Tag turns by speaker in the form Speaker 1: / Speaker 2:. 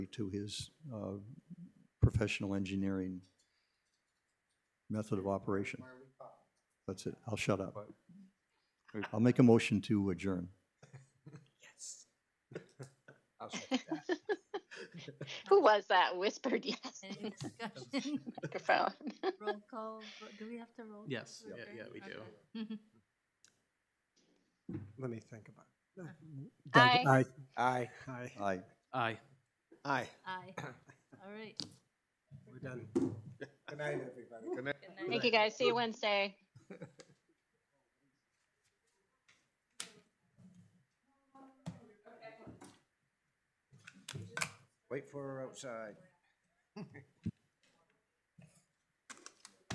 Speaker 1: to his uh, professional engineering method of operation. That's it. I'll shut up. I'll make a motion to adjourn.
Speaker 2: Who was that whispered yes?
Speaker 3: Any discussion?
Speaker 2: Microphone.
Speaker 3: Roll call, vo- do we have to roll?
Speaker 4: Yes,
Speaker 3: call
Speaker 4: yeah,
Speaker 3: vote?
Speaker 4: yeah, we do.
Speaker 3: Okay.
Speaker 5: Let me think about it.
Speaker 2: Aye.
Speaker 5: Aye. Aye. Aye.
Speaker 1: Aye.
Speaker 4: Aye.
Speaker 5: Aye.
Speaker 3: Aye, all right.
Speaker 5: We're done. Good night, everybody. Good night.
Speaker 2: Thank you, guys. See you Wednesday.
Speaker 5: Wait for her outside.